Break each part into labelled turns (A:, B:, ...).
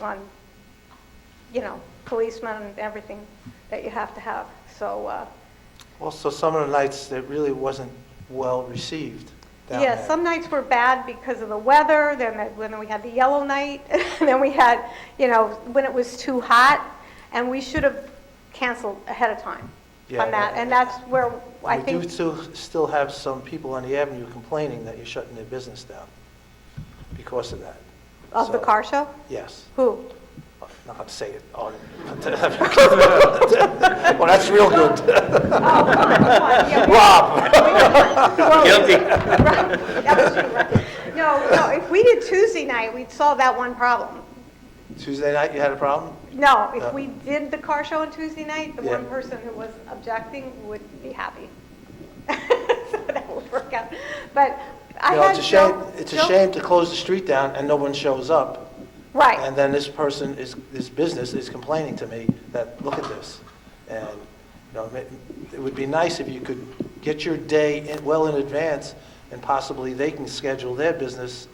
A: on, you know, policemen and everything that you have to have. So, uh,
B: Also, some of the nights, it really wasn't well-received down there.
A: yeah, some nights were bad because of the weather, then, that- then we had the yellow night, and then we had, you know, when it was too hot, and we should have canceled ahead of time
B: Yeah,
A: on that,
B: that-
A: and that's where I
B: We
A: think.
B: do still, still have some people on the avenue complaining that you're shutting their business down because of that.
A: Of the
B: So,
A: car show?
B: Yes.
A: Who?
B: I'm Not going to say it on, well, that's real good.
A: Oh, Rob! Guilty. No, no, if we did Tuesday night, we'd solve that one problem.
B: Tuesday night, you had a problem?
A: No, if
B: No.
A: we did the car show on Tuesday night, the
B: Uh, Yeah.
A: one person who was objecting would be happy. So that would work out. But I
B: You know,
A: had
B: it's a shame,
A: Joe-
B: it's a
A: Joe-
B: shame to close the street down and no one shows up.
A: Right,
B: And then this person is, this business is complaining to me that, look at this. And, you know, it it would be nice if you could get your day in- well in advance and possibly they can schedule their business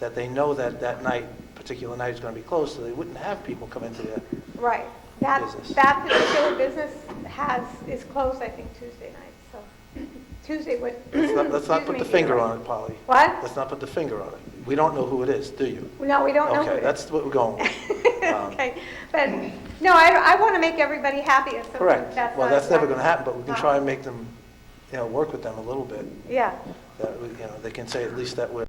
B: that they know that that night, particular night is going to be closed, so they wouldn't have people come into there.
A: right. That,
B: Business.
A: that particular business has, is closed, I think, Tuesday night, so Tuesday would.
B: Let's not, let's not put the
A: Excuse me.
B: finger on it, Polly.
A: What?
B: Let's not put the finger on it. We don't know who it is, do you?
A: No, we don't know who it
B: Okay,
A: is.
B: that's what we're going with. Um,
A: Okay, but, no, I, I want to make everybody happy, and so
B: Correct.
A: that's
B: Well,
A: not-
B: that's never going to happen, but we can
A: No.
B: try and make them, you know, work with them a little bit.
A: Yeah,
B: that, we- you know, they can say at least that we're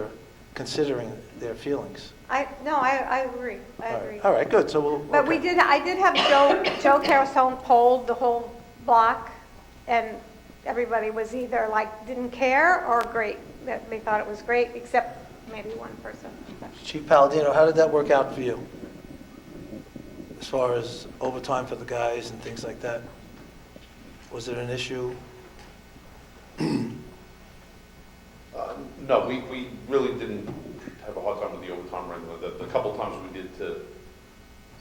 B: considering their feelings.
A: I, no, I, I agree, I
B: All right.
A: agree.
B: All right, good, so we'll.
A: But we
B: okay.
A: did, I did have Joe, Joe Carusone polled the whole block, and everybody was either like, didn't care, or great, that they thought it was great, except maybe one person.
B: Chief Palladino, how did that work out for you? As far as overtime for the guys and things like that? Was it an issue?
C: Uh, No, we, we really didn't have a hard time with the overtime or anything. The, the couple times we did to,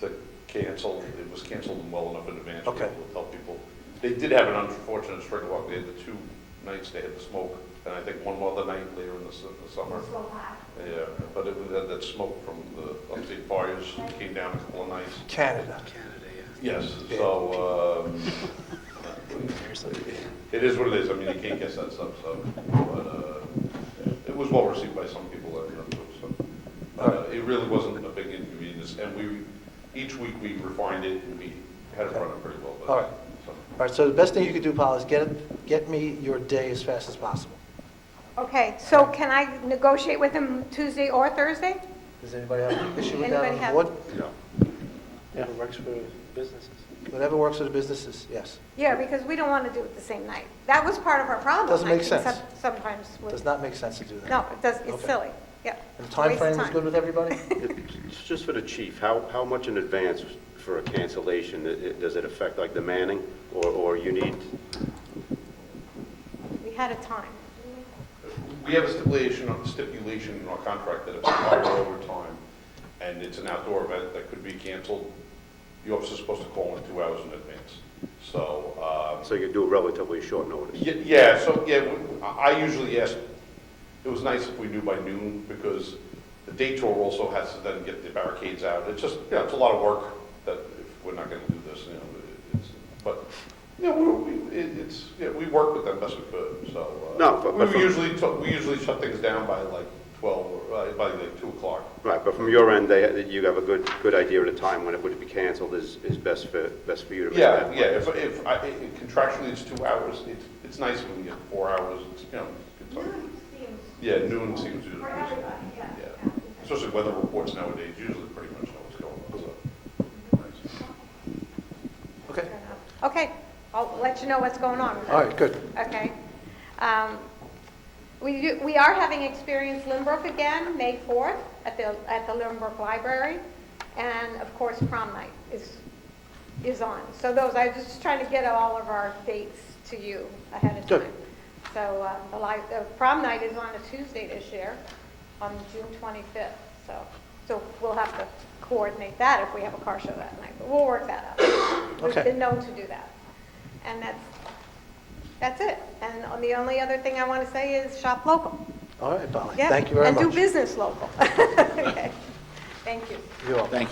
C: to cancel, it was canceled well enough in advance. We were
B: Okay.
C: able to tell people. They did have an unfortunate string of luck. They had the two nights they had the smoke, and I think one other night later in the, su- the summer. Yeah, but it was, that, that smoke from the upstate fires came down a couple of nights.
B: Canada.
C: Yes, so, um, it is what it is, I mean, you can't guess that stuff, so, but, uh, it was well received by some people, I remember, so. Uh, it really wasn't a big inconvenience, and we, each week we refined it, and we had it running pretty well, but.
B: All right.
C: so.
B: All right, so the best thing you could do, Paul, is get, it- get me your day as fast as possible.
A: Okay, so can I negotiate with him Tuesday or Thursday?
B: Does anybody have an issue with that
A: Anybody
B: on the
A: have-
B: board?
C: Yeah.
D: It works for businesses.
B: Whatever works for the businesses, yes.
A: Yeah, because we don't want to do it the same night. That was part of our problem.
B: Doesn't
A: I
B: make
A: think,
B: sense.
A: some- Sometimes with.
B: Does not make sense to do that.
A: No, it does, it's
B: Okay.
A: silly, yeah.
B: And the
A: It's a waste of
B: timeframe is
A: time.
B: good with everybody?
D: Just for the chief, how, how much in advance for a cancellation, i- i- does it affect like the manning, or, or you need,
A: We had a time.
C: We have a stipulation, stipulation in our contract that if it's five hour overtime and it's an outdoor event that could be canceled, the officer's supposed to call in two hours in advance. So, um,
D: so you do relatively short notice?
C: Ye- Yeah, so, yeah, we- I I usually ask, it was nice if we knew by noon, because the day tour also has to then get the barricades out. It's just, you know, it's a lot of work that if we're not gonna do this, you know, it- it's, but, you know, we, we- it- it's, yeah, we work with them best we could, so. uh,
D: No, but- but
C: We
D: from-
C: usually, to- we usually shut things down by like twelve, or uh, by like two o'clock.
D: Right, but from your end, they, you have a good, good idea of the time when it would be canceled is, is best for, best for you to make
C: Yeah,
D: that.
C: yeah, if, if, I- i- contractually it's two hours, it's, it's nice when we get four hours, it's, you know. it's good time. Yeah, noon seems to be reasonable. Yeah, especially weather reports nowadays, usually pretty much know what's going on, so.
B: Okay,
A: Okay, I'll let you know what's going on.
B: all right, good.
A: Okay. Um, We, do- we are having Experience Lynbrook again, May 4th, at the, at the Lynbrook Library. And of course, prom night is, is on. So those, I was just trying to get all of our dates to you ahead of
B: Good.
A: time. So uh, the li, the prom night is on a Tuesday this year, on June 25th. So, so we'll have to coordinate that if we have a car show that night, but we'll work that out. We've
B: Okay.
A: been known to do that. And that's, that's it. And the only other thing I want to say is shop local.
B: All right, Polly,
A: Yeah,
B: thank you very much.
A: And do business local. Okay. Thank you.
B: You're welcome.